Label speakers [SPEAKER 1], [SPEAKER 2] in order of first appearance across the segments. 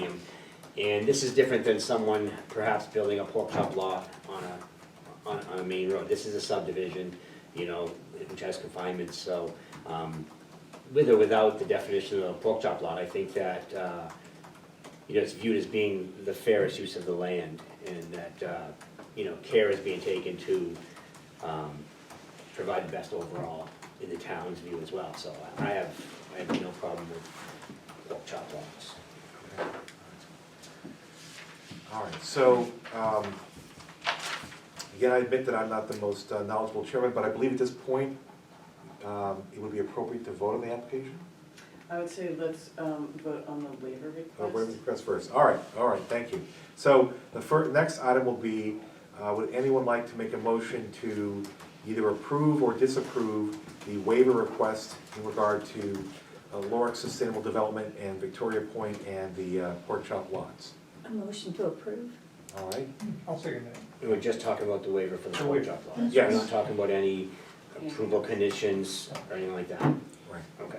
[SPEAKER 1] premium. And this is different than someone perhaps building a pork chop lot on a, on, on a main road. This is a subdivision, you know, which has confinements, so, um, with or without the definition of a pork chop lot, I think that, uh, you know, it's viewed as being the fairest use of the land, and that, uh, you know, care is being taken to, um, provide the best overall in the town's view as well, so I have, I have no problem with pork chop lots.
[SPEAKER 2] All right, so, um, again, I admit that I'm not the most uh, knowledgeable chairman, but I believe at this point, um, it would be appropriate to vote on the application?
[SPEAKER 3] I would say let's um, vote on the waiver
[SPEAKER 2] Uh, wait,
[SPEAKER 3] request.
[SPEAKER 2] request first, all right, all right, thank you. So the fir, next item will be, uh, would anyone like to make a motion to either approve or disapprove the waiver request in regard to uh, Lawrence Sustainable Development and Victoria Point and the uh, pork chop lots?
[SPEAKER 4] A motion to approve?
[SPEAKER 2] All right,
[SPEAKER 5] I'll second that.
[SPEAKER 1] We were just talking about the waiver for the
[SPEAKER 5] The
[SPEAKER 1] pork
[SPEAKER 5] waiver.
[SPEAKER 1] chop lots.
[SPEAKER 2] Yes.
[SPEAKER 1] We're not talking about any approval conditions or anything like that.
[SPEAKER 2] right.
[SPEAKER 1] Okay.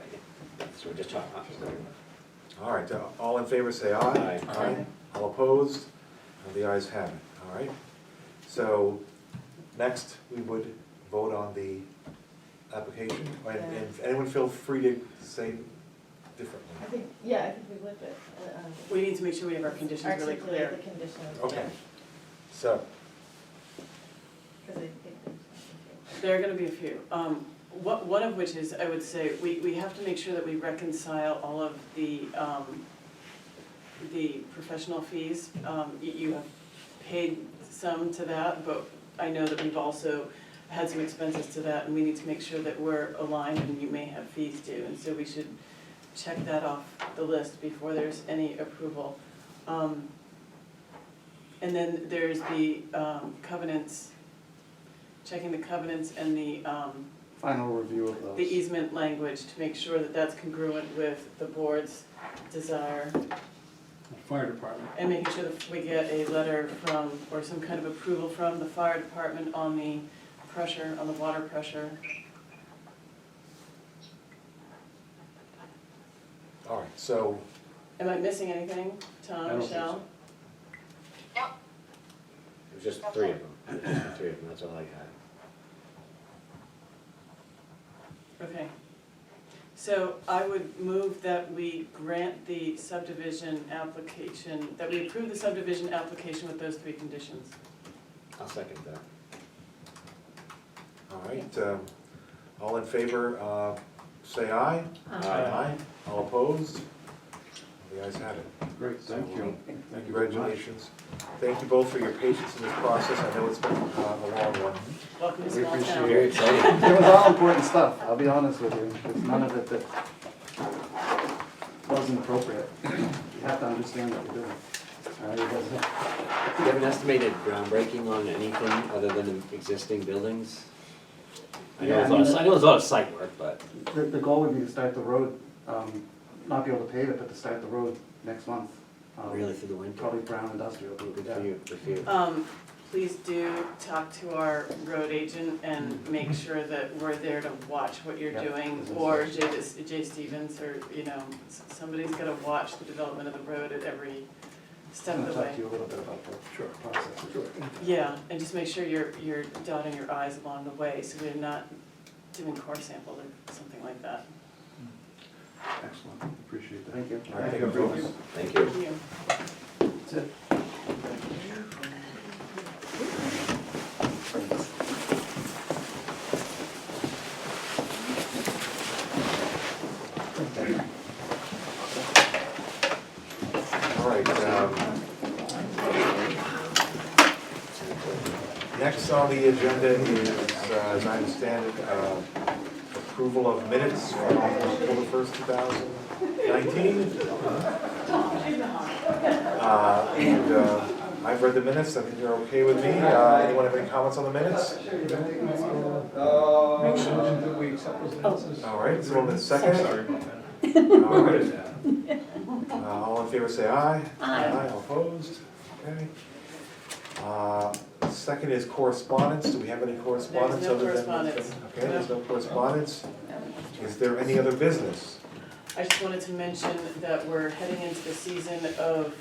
[SPEAKER 1] So we're just talking.
[SPEAKER 2] All right, uh, all in favor, say aye.
[SPEAKER 1] Aye.
[SPEAKER 2] All opposed? Uh, The ayes have it, all right? So, next, we would vote on the application, and and anyone feel free to say
[SPEAKER 6] I
[SPEAKER 2] differently.
[SPEAKER 6] think, yeah, I think we've looked at, uh, um,
[SPEAKER 3] We need to make sure we have our conditions really
[SPEAKER 6] articulate
[SPEAKER 3] clear.
[SPEAKER 6] the conditions.
[SPEAKER 2] Okay, so,
[SPEAKER 6] Because I think there's.
[SPEAKER 3] There are gonna be a few. Um, What, one of which is, I would say, we, we have to make sure that we reconcile all of the, um, the professional fees. Um, You, you have paid some to that, but I know that we've also had some expenses to that, and we need to make sure that we're aligned, and you may have fees due, and so we should check that off the list before there's any approval. Um, And then there's the um, covenants, checking the covenants and the, um,
[SPEAKER 5] Final review of
[SPEAKER 3] the
[SPEAKER 5] those.
[SPEAKER 3] easement language to make sure that that's congruent with the board's desire.
[SPEAKER 5] Fire department.
[SPEAKER 3] And making sure that we get a letter from, or some kind of approval from the fire department on the pressure, on the water pressure.
[SPEAKER 2] all right, so,
[SPEAKER 3] Am I missing anything,
[SPEAKER 5] I
[SPEAKER 3] Tom,
[SPEAKER 5] don't think
[SPEAKER 3] Michelle?
[SPEAKER 1] It was just three of them. Just the Three of them, that's all I had.
[SPEAKER 3] Okay. So I would move that we grant the subdivision application, that we approve the subdivision application with those three conditions.
[SPEAKER 1] I'll second that.
[SPEAKER 2] all right, um, all in favor, uh, say aye.
[SPEAKER 5] Aye.
[SPEAKER 2] All opposed? The ayes have it.
[SPEAKER 5] Great, thank you. Thank you very much.
[SPEAKER 2] Congratulations. Thank you both for your patience in this process, I know it's been uh, a long one.
[SPEAKER 3] Welcome to
[SPEAKER 5] We
[SPEAKER 3] small
[SPEAKER 5] appreciate
[SPEAKER 3] town.
[SPEAKER 1] Very exciting.
[SPEAKER 5] It was all important stuff, I'll be honest with you. There's none of it that wasn't appropriate. You have to understand what you're doing. Uh, All right, you guys-
[SPEAKER 1] Do you have an estimated groundbreaking on anything other than the existing buildings? I know it's a lot of, I know it's a lot of site work, but.
[SPEAKER 5] The, the goal would be to start the road, um, not be able to pave it, but to start the road next month. Um,
[SPEAKER 1] Really through the winter.
[SPEAKER 5] Probably uh, brown industrial.
[SPEAKER 1] Good
[SPEAKER 5] yeah.
[SPEAKER 1] for you, good for you.
[SPEAKER 3] Um, please do talk to our road agent and
[SPEAKER 5] Mm-hmm.
[SPEAKER 3] make sure that we're there to watch what you're
[SPEAKER 5] Yeah.
[SPEAKER 3] doing. Or Jay, Jay Stevens, or, you know, s- somebody's gotta watch the development of the road at every step
[SPEAKER 5] I'm
[SPEAKER 3] of
[SPEAKER 5] gonna
[SPEAKER 3] the
[SPEAKER 5] talk
[SPEAKER 3] way.
[SPEAKER 5] to you a little bit about the process.
[SPEAKER 3] Yeah, and just make sure you're, you're dotting your i's along the way, so we're not doing core sample or something like that.
[SPEAKER 5] Excellent, appreciate that. Thank you.
[SPEAKER 2] All right, take a vote.
[SPEAKER 1] Thank you.
[SPEAKER 3] Thank you.
[SPEAKER 5] That's it.
[SPEAKER 2] All right, um, next on the agenda is, uh, as I understand it, uh, approval of minutes from October first, two thousand nineteen. Uh, and, uh, I've read the minutes, I think they're okay with me, uh, anyone have any comments on the minutes?
[SPEAKER 7] Motion that we accept those minutes.
[SPEAKER 2] All right, someone in second?
[SPEAKER 7] Sorry about that.
[SPEAKER 2] All
[SPEAKER 7] What
[SPEAKER 2] right,
[SPEAKER 7] is that?
[SPEAKER 2] Uh, All in favor, say aye.
[SPEAKER 4] Aye.
[SPEAKER 2] all opposed, okay. Uh, Second is correspondence, do we have any correspondence
[SPEAKER 3] There's no
[SPEAKER 2] other than?
[SPEAKER 3] correspondence.
[SPEAKER 2] Okay, there's no correspondence. Is there any other business?
[SPEAKER 3] I just wanted to mention that we're heading into the season of